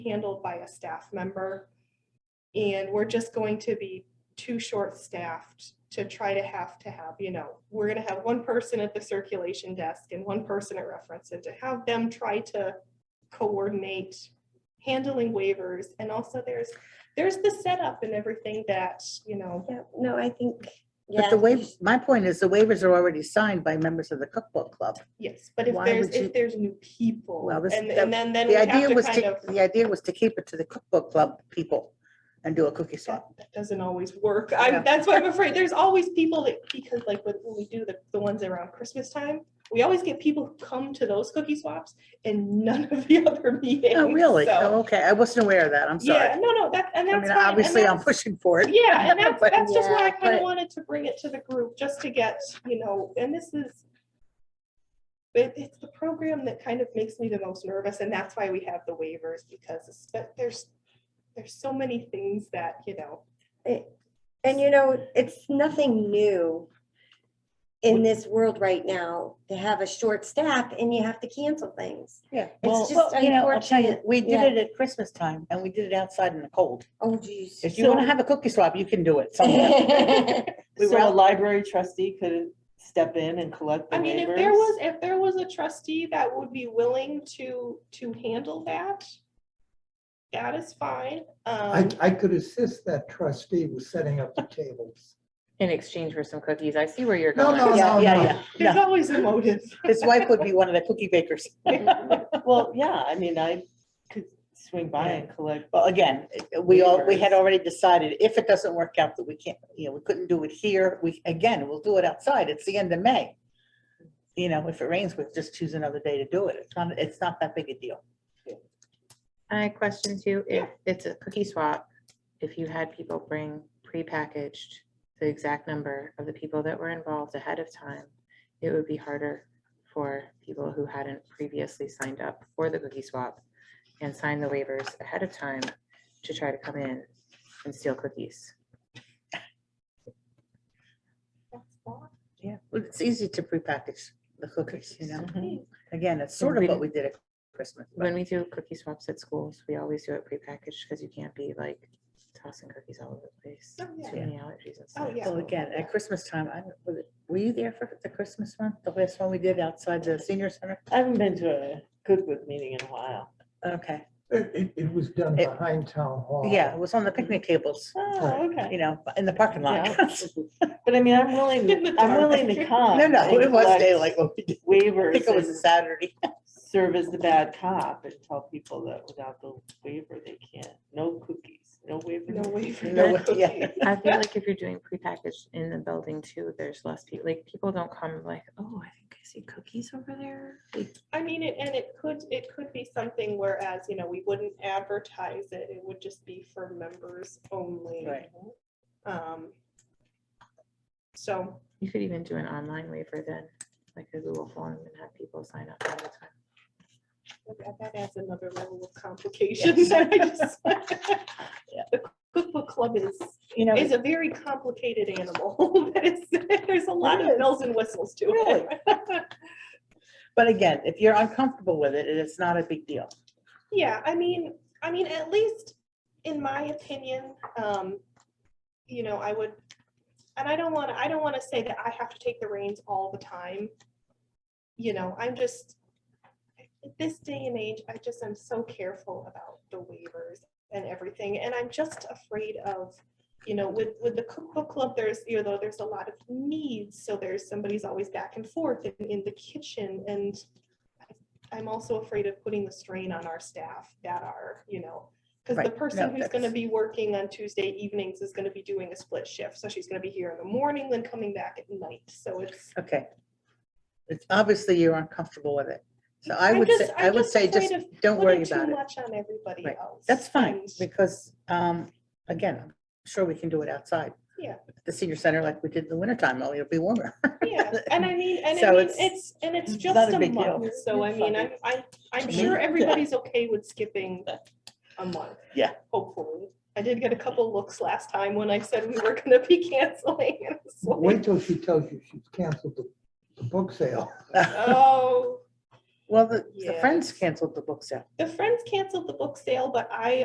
handled by a staff member. And we're just going to be too short-staffed to try to have to have, you know, we're gonna have one person at the circulation desk and one person at reference, and to have them try to coordinate handling waivers, and also there's, there's the setup and everything that, you know, Yeah, no, I think, yeah. But the you waiver, sh- my point is the waivers are already signed by members of the cookbook club. yes, but if Why there's, would you- if there's new people, Well, this- and that- and then, then we The have idea to was kind to, of, the idea was to keep it to the cookbook club people and do a cookie that swap. that doesn't always work. Yeah. I'm, that's why I'm afraid, there's always people that, because like when when we do the, the ones around Christmas time, we always get people who come to those cookie swaps and none of the other meetings. Oh, really? so- Oh, okay. I wasn't aware of that. I'm Yeah, sorry. no, no, that, and I that's mean, fine, and obviously I'm that's- pushing for it. Yeah, and that's, But- that's just why I yeah, kind but- of wanted to bring it to the group, just to get, you know, and this is. But it's the program that kind of makes me the most nervous, and that's why we have the waivers, because it's- but there's, there's so many things that, you know. And you know, it's nothing new in this world right now to have a short staff and you have to cancel things. Yeah. It's Well, just you know, I'll tell you, unfortunate. we did Yeah. it at Christmas time and we did it outside in the cold. Oh geez. If you want to have a cookie swap, you can do it somewhere. We were So- a library trustee could step in and collect the I mean, if waivers. there was, if there was a trustee that would be willing to, to handle that. That is fine, I, um, I could assist that trustee with setting up the tables. in exchange for some cookies. I see where you're No, going. no, Yeah, no, yeah, no. yeah. there's No. always a motive. His wife would be one of the cookie bakers. Well, yeah, I mean, I could swing by and collect. Well, again, we all, we had Waivers. already decided if it doesn't work out that we can't, you know, we couldn't do it here, we, again, we'll do it outside. It's the end of May. You know, if it rains, we'll just choose another day to do it. It's not, it's not that big a deal. I question too, if it's a cookie swap, if you had people bring prepackaged the exact number of the people that were involved ahead of time, it would be harder for people who hadn't previously signed up for the cookie swap and signed the waivers ahead of time to try to come in and steal cookies. Yeah. Well, it's easy to prepackage the cookies, you know? Mhm. Again, it's sort of what we did at Christmas. but- When we do cookie swaps at schools, we always do it prepackaged because you can't be like tossing cookies all over the place. Oh, yeah. Too many allergies and stuff. Oh, yeah. Well, again, at Christmas time, I, don't- was it- were you there for the Christmas one, the last one we did outside the senior center? I haven't been to a Goodwood meeting in a while. Okay, It, it- it was done It- behind town hall. yeah, it was on the picnic tables, Oh, okay. you know, in the parking lot. But I mean, I'm willing, In the to- I'm dark. willing to come. No, no, and it was collect daylight. when we did- I think Waivers it was a and Saturday. serve as the bad cop and tell people that without the waiver, they can't, no cookies, no waiver. No waiver. No, yeah. cookie. I feel like if you're doing prepackaged in the building too, there's less people, like, people don't come like, oh, I think I see cookies over there. Like, I mean, it- and it could, it could be something whereas, you know, we wouldn't advertise it, it would just be for members only. Right. Um, So, You could even do an online waiver then, like a Google form and have people sign up all the time. that that adds another level of complications. that I just- The cookbook club is, You know, is a very complicated animal, that is, there's a lot of bells and whistles to Really? it. but again, if you're uncomfortable with it, it's not a big deal. Yeah, I mean, I mean, at least in my opinion, um, you know, I would, and I don't wanna, I don't wanna say that I have to take the reins all the time. You know, I'm just, at this day and age, I just am so careful about the waivers and everything, and I'm just afraid of, you know, with, with the cookbook club, there's, you know, there's a lot of needs, so there's, somebody's always back and forth in, in the kitchen, and I'm also afraid of putting the strain on our staff that are, you know, because the Right, no, person who's gonna that's- be working on Tuesday evenings is gonna be doing a split shift, so she's gonna be here in the morning, then coming back at night, so it's. Okay. It's obviously you're uncomfortable with it. So I I'm would just- say, I I'm would just say afraid just of don't worry Putting too about it. much on everybody Right, else. That's fine and- because, um, again, I'm sure we can do it outside. Yeah. At The senior center like we did in the wintertime, only it'll be warmer. Yeah, and I mean, and I So mean, it's it's, and it's not just a a big deal. month, so I mean, I'm, I'm, I'm To sure me. everybody's okay with skipping a month. Yeah. Hopefully. I did get a couple looks last time when I said we were gonna be canceling. and it's like, Wait till she tells you she's canceled the, the book sale. Oh, Well, the, the Yeah. Friends canceled the book sale. The Friends canceled the book sale, but I